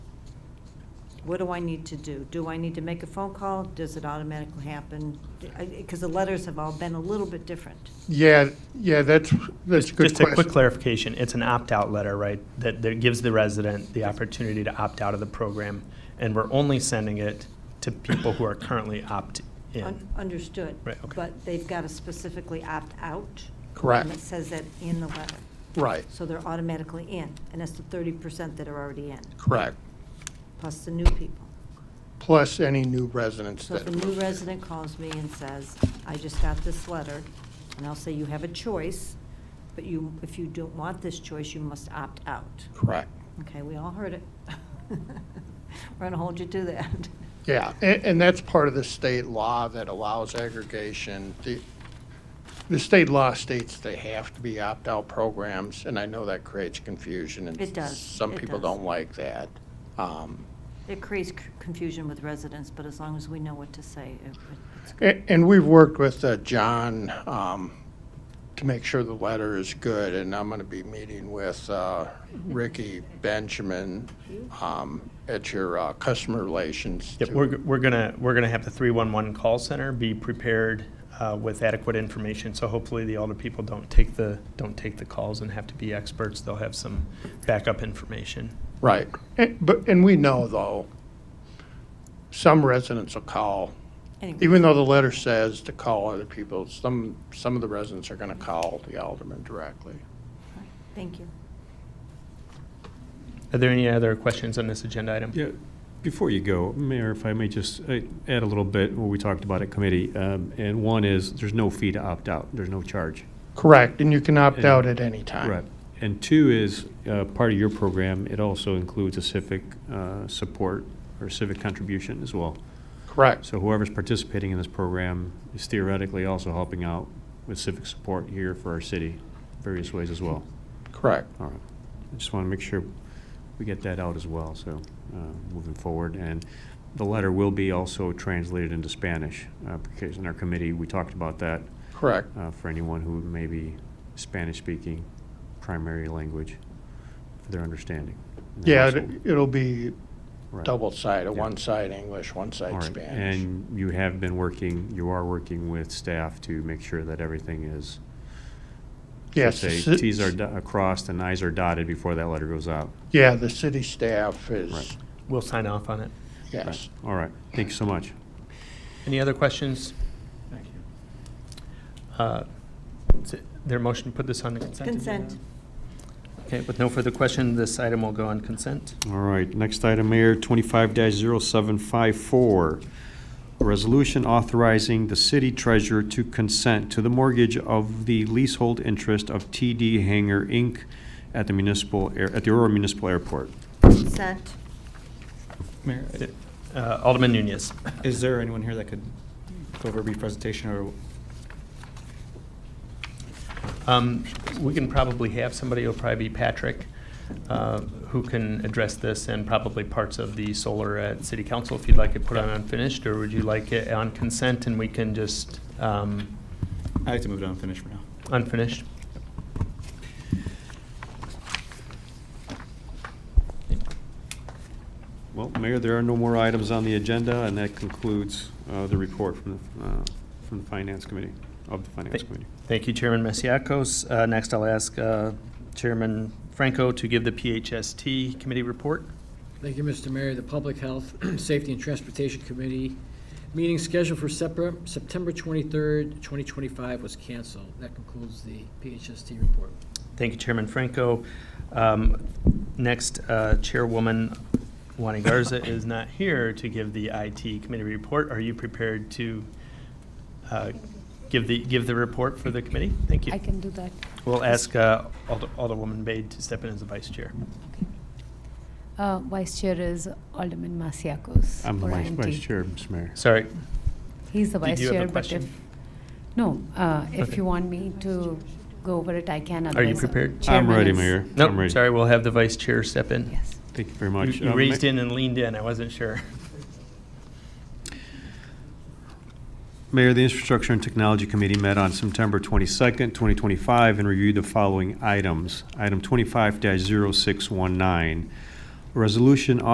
What do I need to do? Do I need to make a phone call? Does it automatically happen? Because the letters have all been a little bit different. Yeah, yeah, that's, that's a good Just a quick question. clarification, it's an opt-out letter, right? That, that gives the resident the opportunity to opt out of the program, and we're only sending it to people who are currently Un- opt-in. Understood. Right, okay. But they've got to specifically opt out. And it Correct, says that in the letter. right, So they're automatically in, and that's the thirty percent that are already in, correct. plus the new people. Plus any new residents So if that, a new resident calls me and says, I just got this letter, and I'll say, you have a choice, but you, if you don't want this choice, you must opt out. correct. Okay, we all heard it. We're going to hold you to that. Yeah, and, and that's part of the state law that allows aggregation. The, the state law states they have to be opt-out programs, and I know that creates confusion. and It does, Some it people does. don't like that. Um, It creates c- confusion with residents, but as long as we know what to say, it- it's good. A- And we've worked with uh, John um, to make sure the letter is good, and I'm going to be meeting with uh, Ricky Benjamin um, at your uh, customer relations. Yep, to- we're, we're gonna, we're gonna have the 311 call center be prepared uh, with adequate information, so hopefully the older people don't take the, don't take the calls and have to be experts, they'll have some backup information. Right. And- But, and we know, though, some residents will call, Anyway, even though the letter says to call other people, some, some of the residents are going to call the alderman directly. thank you. Are there any other questions on this agenda item? Yeah, before you go, Mayor, if I may just uh, add a little bit, what we talked about at committee, um, and one is, there's no fee to opt out, there's no charge. Correct, and you can opt out at any time. And two is, uh, part of your program, it also includes a civic uh, support or civic contribution as well. Correct. So whoever's participating in this program is theoretically also helping out with civic support here for our city, various ways as well. Correct. All right. I just want to make sure we get that out as well, so uh, moving forward. And the letter will be also translated into Spanish, uh, because in our committee, we talked about that Correct. uh, for anyone who may be Spanish-speaking, primary language, for their understanding. in the Yeah, household. it- it'll be Right. double-sided, Yeah. one side English, one All side right. Spanish. And you have been working, you are working with staff to make sure that everything is, Yes, say, the ci- Ts are do- are crossed and Is are dotted before that letter goes out. Yeah, the city staff is, Right. We'll sign off on it. yes. All right, thank you so much. Any other questions? Thank you. Is it their motion to put this on the consent? agenda? Consent. Okay, with no further question, this item will go on consent. All right, next item, Mayor, twenty-five 754 A resolution authorizing the city treasurer to consent to the mortgage of the leasehold interest of TD Hangar Inc. at the municipal, air at the Aurora Municipal Airport. Consent. Mayor, Uh, Alderman Nunez. is there anyone here that could go over a brief presentation or? Um, We can probably have somebody, it'll probably be Patrick, uh, who can address this and probably parts of the solar at city council, if you'd like it put on unfinished, or would you like it on consent and we can just um, I'd like to move it on and finish for now. unfinished? Well, Mayor, there are no more items on the agenda, and that concludes, uh, the report from, the uh, from the Finance Committee, of the Finance Thank- Committee. Thank you, Chairman Masiacos. Uh, Next, I'll ask uh, Chairman Franco to give the PHST committee report. Thank you, Mr. Mayor. The Public Health, Safety, and Transportation Committee meeting scheduled for Sepra- September 23rd, 2025 was canceled. That concludes the PHST report. Thank you, Chairman Franco. Um, Next, uh, Chairwoman Wani Garza is not here to give the IT committee report. Are you prepared to uh, give the, give the report for the committee? Thank you. I can do that. We'll ask uh, Alder- Alderwoman Bade to step in as the vice chair. Uh, Vice Chair is Alderman Masiacos. I'm the for vice, vice INT. chair, Mr. Mayor. Sorry, He's the Did vice you have a chair, but question? if, no, uh, if Okay. you want me to go over it, I can. Are you otherwise, uh, prepared? I'm I'm Chairman ready, is- Mayor. I'm no, ready. sorry, we'll have the vice chair step in. Yes. Thank you very You- much. You Uh, raised Ma- in and leaned in, I wasn't sure. Mayor, the Infrastructure and Technology Committee met on September 22nd, 2025, and reviewed the following items. Item 25-0619, a resolution